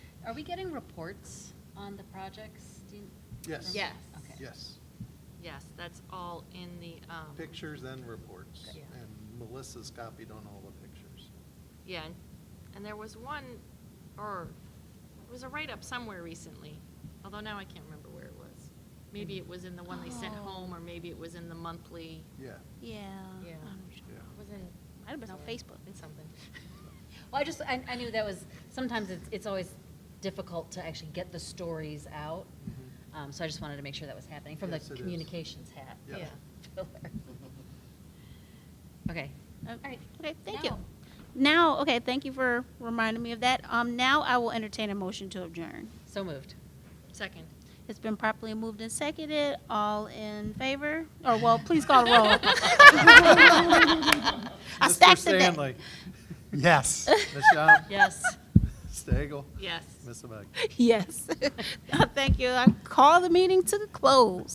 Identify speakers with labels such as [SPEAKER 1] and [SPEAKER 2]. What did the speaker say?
[SPEAKER 1] Are we getting reports on the projects? Do you-
[SPEAKER 2] Yes.
[SPEAKER 3] Yes.
[SPEAKER 1] Okay.
[SPEAKER 2] Yes,
[SPEAKER 3] Yes, that's all in the, um.
[SPEAKER 2] pictures and reports.
[SPEAKER 3] Great. Yeah.
[SPEAKER 2] And Melissa's copied on all the pictures.
[SPEAKER 3] Yeah, and- and there was one, or, it was a write-up somewhere recently, although now I can't remember where it was. Maybe it was in the one they sent
[SPEAKER 4] Oh.
[SPEAKER 3] home, or maybe it was in the monthly.
[SPEAKER 2] Yeah,
[SPEAKER 4] Yeah.
[SPEAKER 3] Yeah.
[SPEAKER 4] I know what you're talking
[SPEAKER 2] Yeah.
[SPEAKER 4] about. It was in, might have been on Facebook.
[SPEAKER 3] In something.
[SPEAKER 1] Well, I just, I, I knew that was, sometimes it's, it's always difficult to actually get the stories out.
[SPEAKER 2] Mhm.
[SPEAKER 1] Um, so I just wanted to make sure that was happening from the
[SPEAKER 2] Yes, it is.
[SPEAKER 1] communications hat.
[SPEAKER 2] Yeah.
[SPEAKER 3] Yeah.
[SPEAKER 1] Filler. Okay.
[SPEAKER 4] All
[SPEAKER 1] right.
[SPEAKER 4] Okay, thank you.
[SPEAKER 1] Now.
[SPEAKER 4] Now, okay, thank you for reminding me of that. Um, now I will entertain a motion to adjourn.
[SPEAKER 1] So moved.
[SPEAKER 3] Second.
[SPEAKER 4] It's been properly moved and seconded. All in favor? Or, well, please call the roll. Mm-hmm. I
[SPEAKER 2] Mr.
[SPEAKER 4] stacked the deck.
[SPEAKER 2] Stanley,
[SPEAKER 5] Yes.
[SPEAKER 2] Ms. Schaub,
[SPEAKER 1] Yes.
[SPEAKER 2] Stagel,
[SPEAKER 3] Yes.
[SPEAKER 2] Ms. Abag.
[SPEAKER 4] Yes. Thank you. I call the meeting to close.